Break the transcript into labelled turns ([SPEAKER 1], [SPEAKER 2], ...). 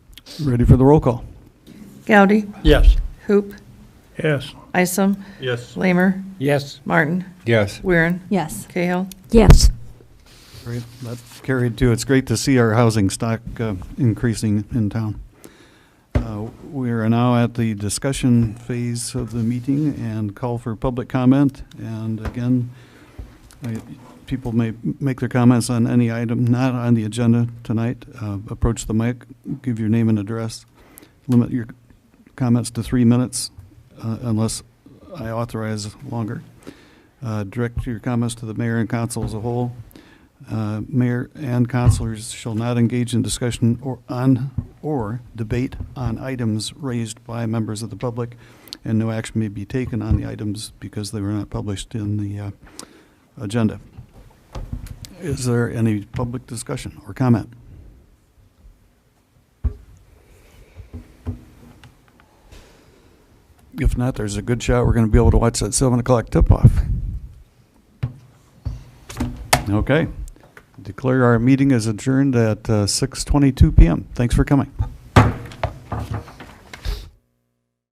[SPEAKER 1] Ready for the roll call?
[SPEAKER 2] Gowdy,
[SPEAKER 3] Yes.
[SPEAKER 2] Hoop,
[SPEAKER 3] Yes.
[SPEAKER 2] Isom,
[SPEAKER 3] Yes.
[SPEAKER 2] Lamer,
[SPEAKER 3] Yes.
[SPEAKER 2] Martin,
[SPEAKER 4] Yes.
[SPEAKER 2] Weirin,
[SPEAKER 5] Yes.
[SPEAKER 2] Cahill.
[SPEAKER 5] Yes.
[SPEAKER 1] Great, that carried too. It's great to see our housing stock uh, increasing in town. Uh, We are now at the discussion phase of the meeting and call for public comment. And again, I- people may make their comments on any item not on the agenda tonight. Uh, Approach the mic, give your name and address. Limit your comments to three minutes uh, unless I authorize longer. Uh, Direct your comments to the mayor and council as a whole. Uh, Mayor and councilors shall not engage in discussion or on, or debate on items raised by members of the public, and no action may be taken on the items because they were not published in the uh, agenda. Is there any public discussion or comment? If not, there's a good shot we're going to be able to watch that 7 o'clock tip-off. Okay. Declare our meeting is adjourned at uh, 6:22 PM. Thanks for coming.